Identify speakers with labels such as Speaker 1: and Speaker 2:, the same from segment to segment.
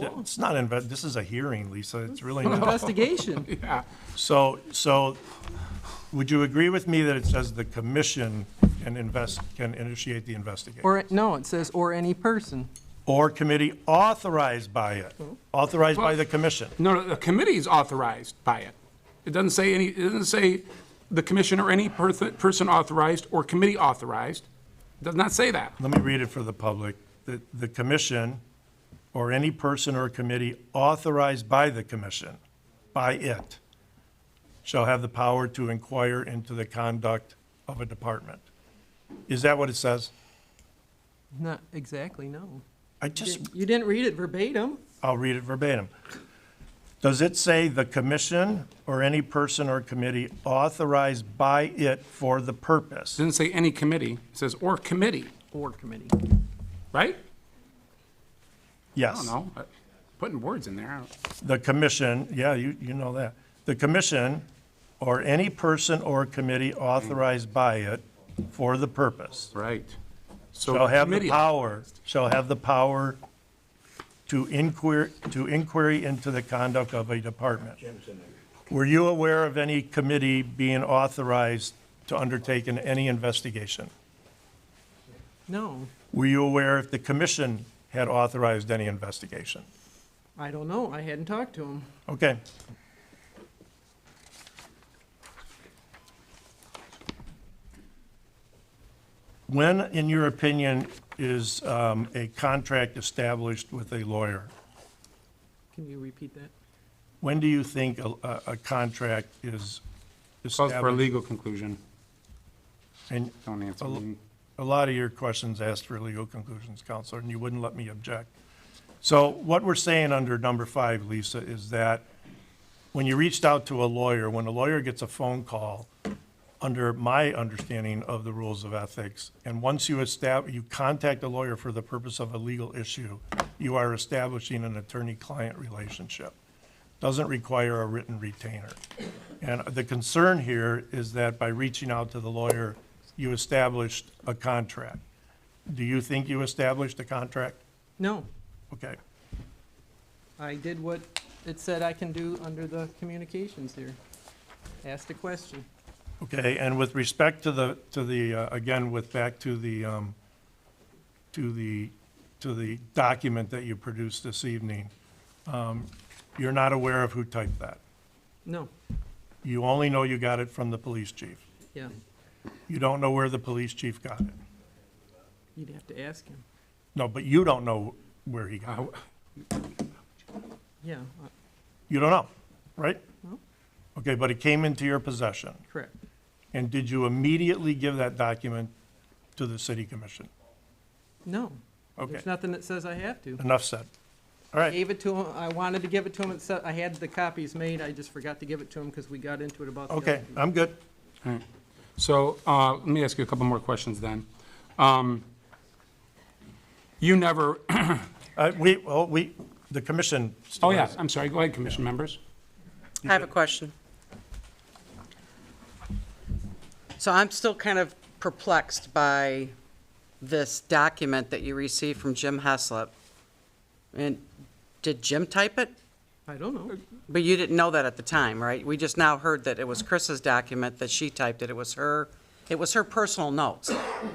Speaker 1: Well, it's not, inve- this is a hearing, Lisa, it's really
Speaker 2: An
Speaker 1: not.
Speaker 2: investigation.
Speaker 1: So, so, would you agree with me that it says the commission can invest, can initiate the investigation?
Speaker 2: Or, no, it says, or any person.
Speaker 1: Or committee authorized by it, authorized by the commission?
Speaker 3: No, no, the committee is authorized by it. It doesn't say any, it doesn't say the commission or any perth- person authorized or committee authorized. It Does not say that.
Speaker 1: Let me read it for the public. The, the commission, or any person or committee authorized by the commission, by it, shall have the power to inquire into the conduct of a department. Is that what it says?
Speaker 2: Not exactly, no.
Speaker 1: I just
Speaker 2: You didn't read it verbatim.
Speaker 1: I'll read it verbatim. Does it say the commission or any person or committee authorized by it for the
Speaker 3: It
Speaker 1: purpose?
Speaker 3: doesn't say any committee. It says or committee,
Speaker 2: Or committee.
Speaker 3: right? I
Speaker 1: Yes.
Speaker 3: don't know. I- Putting words in there. I don't-
Speaker 1: The commission, yeah, you, you know that. The commission or any person or committee authorized by it for the purpose
Speaker 3: Right. So
Speaker 1: shall have the
Speaker 3: committee-
Speaker 1: power, shall have the power to inquire, to inquiry into the conduct of a department. Were you aware of any committee being authorized to undertake in any investigation?
Speaker 2: No,
Speaker 1: Were you aware if the commission had authorized any investigation?
Speaker 2: I don't know. I hadn't talked to him.
Speaker 1: Okay. When, in your opinion, is um, a contract established with a lawyer?
Speaker 2: Can you repeat that?
Speaker 1: When do you think a, a- a contract is
Speaker 3: Calls for a
Speaker 1: established?
Speaker 3: legal conclusion.
Speaker 1: And
Speaker 3: Don't answer
Speaker 1: A l-
Speaker 3: me.
Speaker 1: a lot of your questions asked for legal conclusions, Counselor, and you wouldn't let me object. So what we're saying under number five, Lisa, is that when you reached out to a lawyer, when a lawyer gets a phone call, under my understanding of the rules of ethics, and once you establish, you contact a lawyer for the purpose of a legal issue, you are establishing an attorney-client relationship. Doesn't require a written retainer. And the concern here is that by reaching out to the lawyer, you established a contract. Do you think you established a contract?
Speaker 2: No,
Speaker 1: Okay.
Speaker 2: I did what it said I can do under the communications here. Asked a question.
Speaker 1: Okay, and with respect to the, to the, uh, again, with back to the, um, to the, to the document that you produced this evening, um, you're not aware of who typed that.
Speaker 2: No,
Speaker 1: You only know you got it from the police chief.
Speaker 2: yeah,
Speaker 1: You don't know where the police chief got it.
Speaker 2: you'd have to ask him.
Speaker 1: No, but you don't know where he
Speaker 3: Uh,
Speaker 1: got it.
Speaker 2: Yeah, uh,
Speaker 1: You don't know, right?
Speaker 2: No.
Speaker 1: Okay, but it came into your possession.
Speaker 2: correct.
Speaker 1: And did you immediately give that document to the city commission?
Speaker 2: No.
Speaker 1: Okay,
Speaker 2: There's nothing that says I have to.
Speaker 1: enough said. All right.
Speaker 2: Gave it to him, I wanted to give it to him, it said, I had the copies made, I just forgot to give it to him because we got into it about the other
Speaker 1: Okay, I'm good.
Speaker 3: All right. So uh, let me ask you a couple more questions then. Um, You never,
Speaker 1: Uh, We, well, we, the commission. still
Speaker 3: oh yeah,
Speaker 1: has-
Speaker 3: I'm sorry, go ahead, commission members.
Speaker 4: I have a question. So I'm still kind of perplexed by this document that you received from Jim Heslop. And did Jim type it?
Speaker 2: I don't know.
Speaker 4: But you didn't know that at the time, right? We just now heard that it was Chris's document, that she typed it, it was her, it was her personal notes.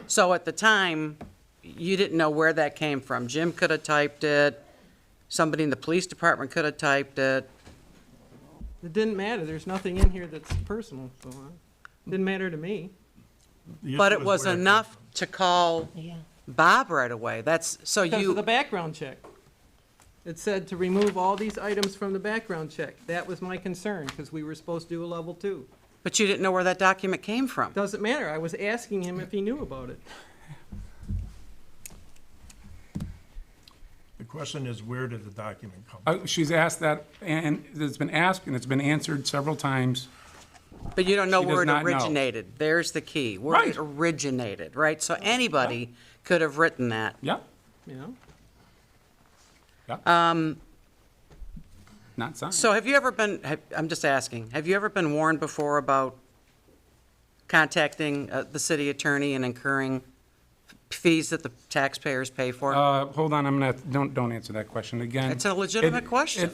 Speaker 4: So at the time, you didn't know where that came from. Jim could have typed it, somebody in the police department could have typed it.
Speaker 2: It didn't matter, there's nothing in here that's personal, so it didn't matter to me.
Speaker 1: The
Speaker 4: But
Speaker 1: issue
Speaker 4: it
Speaker 1: is
Speaker 4: was
Speaker 1: where came
Speaker 4: enough to call Bob right away. That's, so
Speaker 2: Because of the
Speaker 4: you,
Speaker 2: background check. It said to remove all these items from the background check. That was my concern, because we were supposed to do a level two.
Speaker 4: but you didn't know where that document came from.
Speaker 2: Doesn't matter, I was asking him if he knew about it.
Speaker 1: The question is, where did the document come?
Speaker 3: Uh, She's asked that, and it's been asked, and it's been answered several times.
Speaker 4: But you don't know
Speaker 3: She does
Speaker 4: where it
Speaker 3: not know.
Speaker 4: originated. There's the key, where
Speaker 3: Right.
Speaker 4: it originated, right? So anybody could have written that.
Speaker 3: Yeah,
Speaker 2: You know,
Speaker 3: yeah. Not signed.
Speaker 4: Um, So have you ever been, have- I'm just asking, have you ever been warned before about contacting uh, the city attorney and incurring fees that the taxpayers pay for?
Speaker 3: Uh, hold on, I'm gonna, don't, don't answer that question again.
Speaker 4: It's a legitimate
Speaker 3: It-
Speaker 4: question.